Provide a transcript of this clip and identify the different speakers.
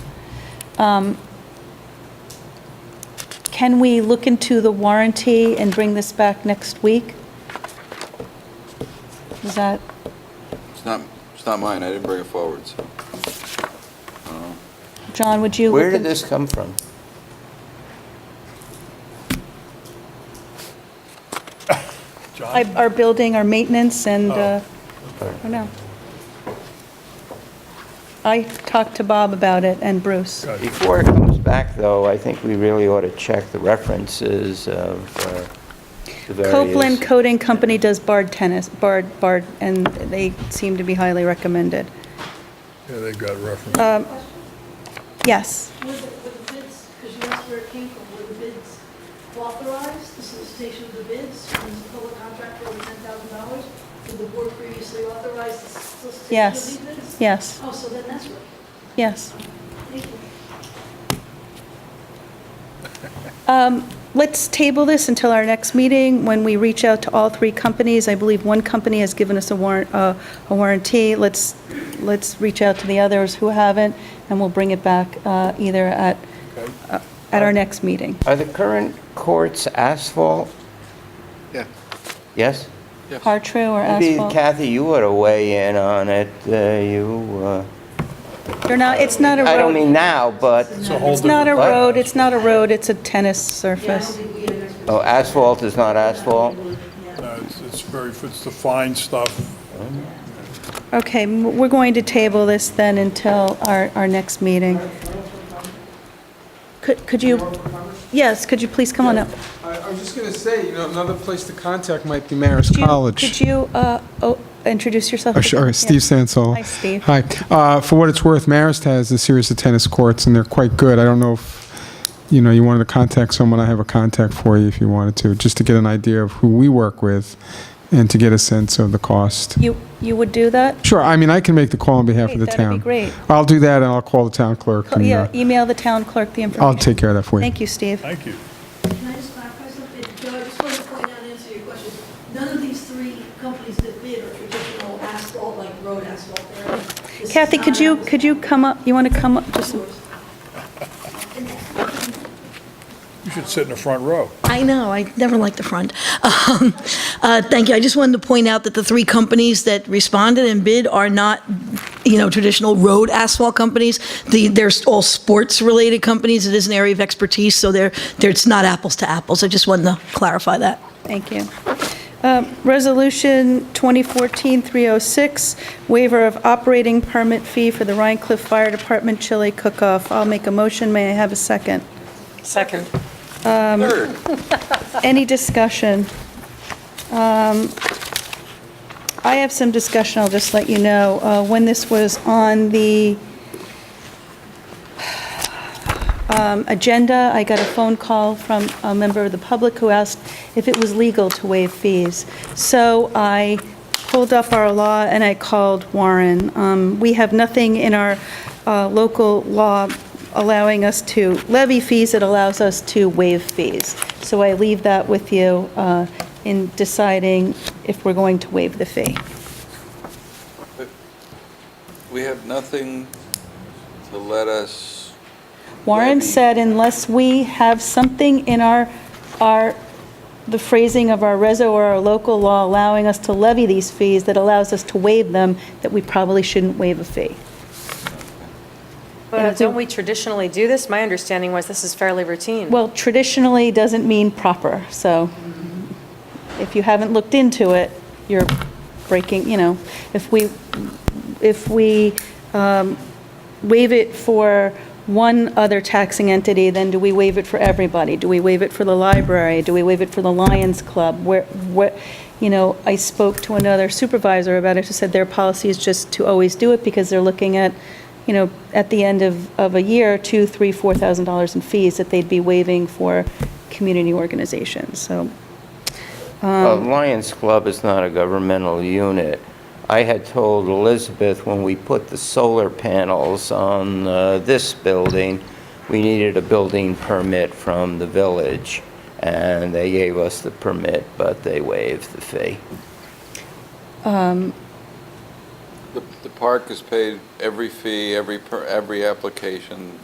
Speaker 1: um, can we look into the warranty and bring this back next week? Is that,
Speaker 2: It's not, it's not mine, I didn't bring it forward, so.
Speaker 1: John, would you?
Speaker 3: Where
Speaker 1: look
Speaker 3: did
Speaker 1: in-
Speaker 3: this come from?
Speaker 1: I- Our building, our maintenance, and, uh, I don't know. I talked to Bob about it and Bruce.
Speaker 4: Good.
Speaker 3: Before it comes back, though, I think we really ought to check the references of uh, the various...
Speaker 1: Copeland Coating Company does barred tennis, barred, barred, and they seem to be highly recommended.
Speaker 4: Yeah, they've got reference.
Speaker 1: Um, Yes,
Speaker 5: Were the, were the bids, because you asked where it came from, were the bids authorized, the solicitation of the bids, when the public contract for over ten thousand dollars? Did the board previously authorize the solicitation of
Speaker 1: yes,
Speaker 5: these bids?
Speaker 1: yes,
Speaker 5: Oh, so then that's right.
Speaker 1: yes.
Speaker 5: Thank you.
Speaker 1: Um, Let's table this until our next meeting, when we reach out to all three companies. I believe one company has given us a warrant, uh, a warranty. Let's, let's reach out to the others who haven't, and we'll bring it back uh, either at,
Speaker 4: Okay.
Speaker 1: uh, at our next meeting.
Speaker 3: Are the current courts asphalt?
Speaker 2: Yeah.
Speaker 3: Yes?
Speaker 1: Are true or
Speaker 3: Maybe
Speaker 1: asphalt?
Speaker 3: Kathy, you ought to weigh in on it, uh, you, uh,
Speaker 1: They're not, it's not a road.
Speaker 3: I don't mean now, but,
Speaker 1: It's not a
Speaker 3: What?
Speaker 1: road, it's not a road, it's a tennis surface.
Speaker 3: oh, asphalt is not asphalt?
Speaker 4: No, Uh, It's it's very, it's the fine stuff.
Speaker 1: Okay, m- we're going to table this then until our, our next meeting. Could, could you, yes, could you please come on up?
Speaker 6: I I was just going to say, you know, another place to contact might be Marist
Speaker 1: Could you-
Speaker 6: College.
Speaker 1: Could you uh, oh, introduce yourself?
Speaker 6: Oh, sure,
Speaker 1: again?
Speaker 6: Steve Sansol.
Speaker 1: Hi, Steve.
Speaker 6: Hi. Uh, For what it's worth, Marist has a series of tennis courts, and they're quite good. I don't know if, you know, you wanted to contact someone, I have a contact for you if you wanted to, just to get an idea of who we work with and to get a sense of the cost.
Speaker 1: You, you would do that?
Speaker 6: Sure, I mean, I can make the call on behalf of the
Speaker 1: Great, that'd be
Speaker 6: town.
Speaker 1: great.
Speaker 6: I'll do that, and I'll call the town clerk.
Speaker 1: Co-
Speaker 6: and,
Speaker 1: Yeah,
Speaker 6: uh,
Speaker 1: email the town clerk the information.
Speaker 6: I'll take care of that for you.
Speaker 1: Thank you, Steve.
Speaker 4: Thank you.
Speaker 5: Can I just clarify something? Joe, I just wanted to point out and answer your question. None of these three companies that bid are traditional asphalt, like road asphalt. They're- this is
Speaker 1: Kathy,
Speaker 5: not
Speaker 1: could you,
Speaker 5: asphalt.
Speaker 1: could you come up, you want to come up? Just
Speaker 4: You should sit in the front row.
Speaker 5: I know, I never liked the front. Um, uh, Thank you, I just wanted to point out that the three companies that responded and bid are not, you know, traditional road asphalt companies. The- They're all sports-related companies, it is an area of expertise, so they're, they're- it's not apples to apples. I just wanted to clarify that.
Speaker 1: Thank you. Um, Resolution 2014-306, waiver of operating permit fee for the Rhine Cliff Fire Department chili cook-off. I'll make a motion, may I have a second?
Speaker 7: Second.
Speaker 2: Third.
Speaker 1: Any discussion? Um, I have some discussion, I'll just let you know. Uh, When this was on the um, agenda, I got a phone call from a member of the public who asked if it was legal to waive fees. So I pulled up our law and I called Warren. Um, We have nothing in our uh, local law allowing us to levy fees, it allows us to waive fees. So I leave that with you uh, in deciding if we're going to waive the fee.
Speaker 2: We have nothing to let us,
Speaker 1: Warren
Speaker 2: Levy.
Speaker 1: said unless we have something in our, our, the phrasing of our reso or our local law allowing us to levy these fees that allows us to waive them, that we probably shouldn't waive a fee.
Speaker 7: But don't we traditionally do this? My understanding was this is fairly routine.
Speaker 1: Well, traditionally doesn't mean proper, so if you haven't looked into it, you're breaking, you know, if we, if we um, waive it for one other taxing entity, then do we waive it for everybody? Do we waive it for the library? Do we waive it for the Lions Club? Where, what, you know, I spoke to another supervisor about it, who said their policy is just to always do it because they're looking at, you know, at the end of, of a year, two, three, four thousand dollars in fees that they'd be waiving for community organizations, so. Um.
Speaker 3: Uh, Lions Club is not a governmental unit. I had told Elizabeth when we put the solar panels on uh, this building, we needed a building permit from the village, and they gave us the permit, but they waived the fee.
Speaker 2: the, the park has paid every fee, every, per every application,